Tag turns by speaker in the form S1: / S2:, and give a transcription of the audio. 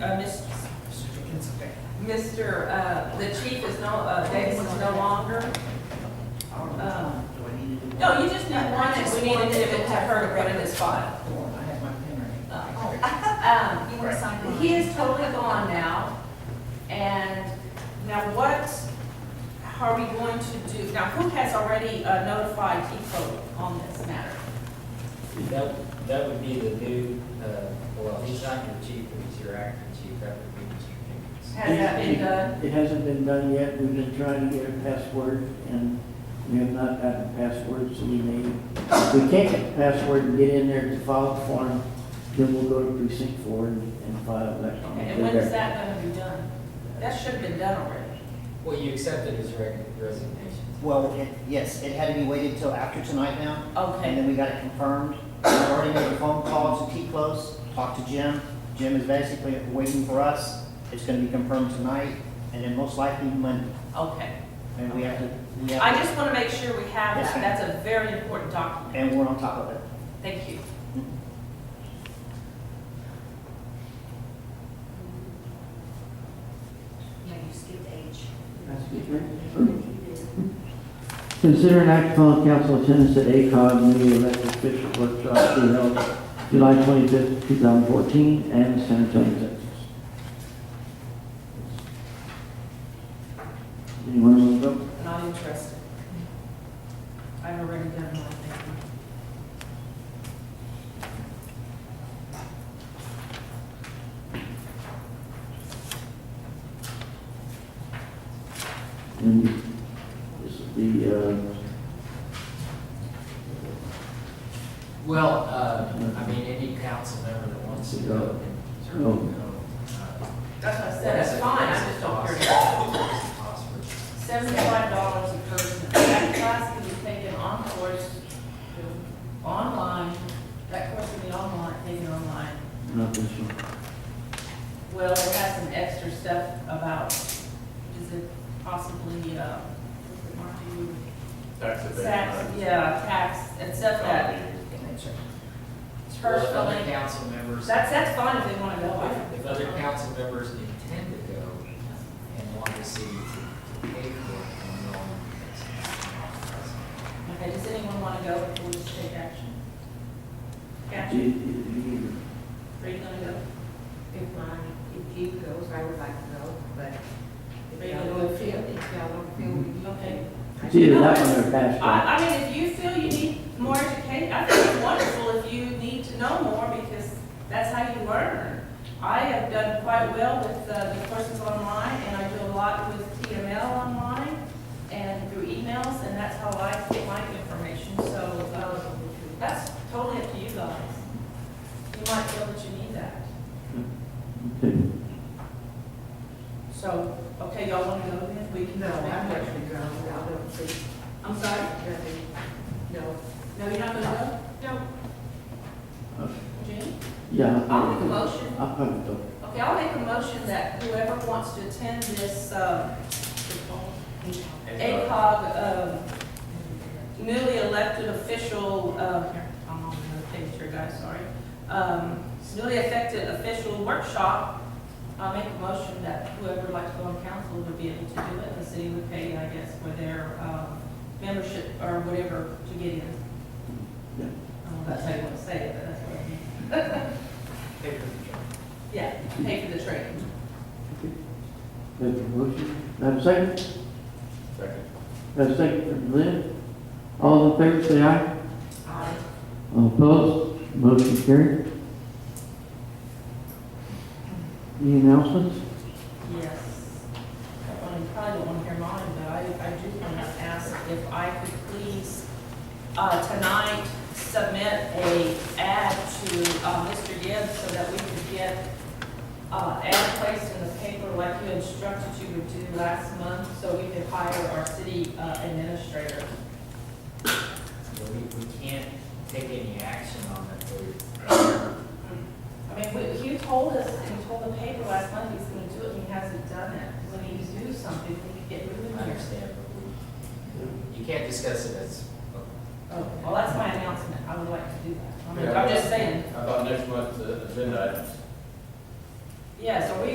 S1: uh, Ms. Mr., uh, the chief is no, uh, Davis is no longer. Um, No, you just need one, and we need to give it to her to put in this file.
S2: I have my pen right
S1: Um,
S3: You want to sign one?
S1: He is totally gone now, and now what are we going to do? Now, who has already uh, notified TIFO on this matter?
S4: That, that would be the new, uh, well, he's not your chief, but he's your acting chief, that would be Mr. Jenkins.
S1: Has that been done?
S5: It hasn't been done yet. We've been trying to get a password and we have not gotten a password, so we may. If we can't get the password and get in there to file the form, then we'll go to precinct four and and file that.
S1: Okay, And when is that going to be done? That should have been done already.
S4: Well, you accepted his reg- resignation.
S2: Well, it, yes, it had to be waited till after tonight now, and then
S1: Okay,
S2: we got it confirmed. I've already made a phone call to T-Close, talked to Jim. Jim is basically waiting for us. It's gonna be confirmed tonight, and then most likely Monday.
S1: okay.
S2: And we have to, we
S1: I
S2: have,
S1: just want to make sure we have
S2: Yes,
S1: that.
S2: ma'am.
S1: That's a very important document.
S2: to- and we're on top of it.
S1: Thank you.
S3: No, you skipped H.
S5: Consider an act upon council attendance at ACOG newly elected official workshop to be held July twenty-fifth, two thousand fourteen, and San Antonio, Texas. Anyone want to go?
S1: Not interested. I've already done my thing.
S5: And this is the, uh,
S4: Well, uh, I mean, any council member that wants to go can certainly go. Uh,
S1: That's what I said, that's
S4: a-
S1: fine, I
S4: that's a
S1: just don't
S4: cost.
S1: care.
S4: It's a cost for-
S1: Seventy-five dollars a person, that class can be taken on course, online, that course can be online, taken online.
S5: not this one.
S1: Well, it has some extra stuff about, is it possibly, uh, what's it, Mark, do you-
S6: That's a big
S1: tax,
S6: one.
S1: yeah, tax, and stuff that,
S4: Well, if other
S1: personally,
S4: council members,
S1: that's, that's fine if they wanna go. I-
S4: if other council members intend to go and want to see to pay for it, then they'll.
S1: Okay, does anyone wanna go, we'll just take action.
S5: Do
S1: Action,
S5: you- do you-
S1: are you gonna go?
S3: If mine, if you goes, I would like to go, but if
S1: Maybe
S3: y'all
S1: we'll
S3: don't feel, if y'all don't feel, we can
S1: Okay.
S5: It's either that one or pass one.
S1: I, I mean, if you feel you need more education, I think it's wonderful if you need to know more because that's how you learn. I have done quite well with uh, the courses online and I do a lot with TML online and through emails and that's how I get my information. So, um, that's totally up to you guys. You might feel that you need that.
S5: Okay.
S1: So, okay, y'all want to go then? We can.
S3: No, I'm not gonna go, I don't think,
S1: I'm sorry?
S3: nothing, no.
S1: No, you're not gonna
S3: No.
S1: go? Jean?
S5: Yeah.
S1: I'll make a motion.
S5: I'll probably go.
S1: Okay, I'll make a motion that whoever wants to attend this um, ACOG um, newly elected official, um, here, I'm on another page here, guys, sorry. Um, Newly elected official workshop, I'll make a motion that whoever would like to go on council would be able to do it. The city would pay, I guess, for their um, membership or whatever to get in. I
S5: Yeah.
S1: don't know if that's how you want to say it, but that's what I mean.
S4: Pay for the job.
S1: Yeah, pay for the training.
S5: That's a motion. Have a second?
S6: Second.
S5: Have a second from Lynn? All in favor, say aye.
S1: Aye.
S5: All opposed? Motion carried. Any announcements?
S1: Yes. Well, you probably don't want to hear mine, but I, I do want to ask if I could please, uh, tonight, submit a ad to, uh, Mr. Gibbs so that we could get, uh, ad placed in the paper like you instructed you would do last month, so we could hire our city uh, administrator.
S4: But we, we can't take any action on it, but
S1: I mean, we- he told us, and he told the paper last month he's going to do it, and he hasn't done it. When he do something, we can get
S4: we
S1: moving here.
S4: understand, but we, you can't discuss it as.
S1: Oh, well, that's my announcement, I would like to do that. I mean, I'm just saying,
S6: How about next month's uh, agenda items?
S1: Yes, are we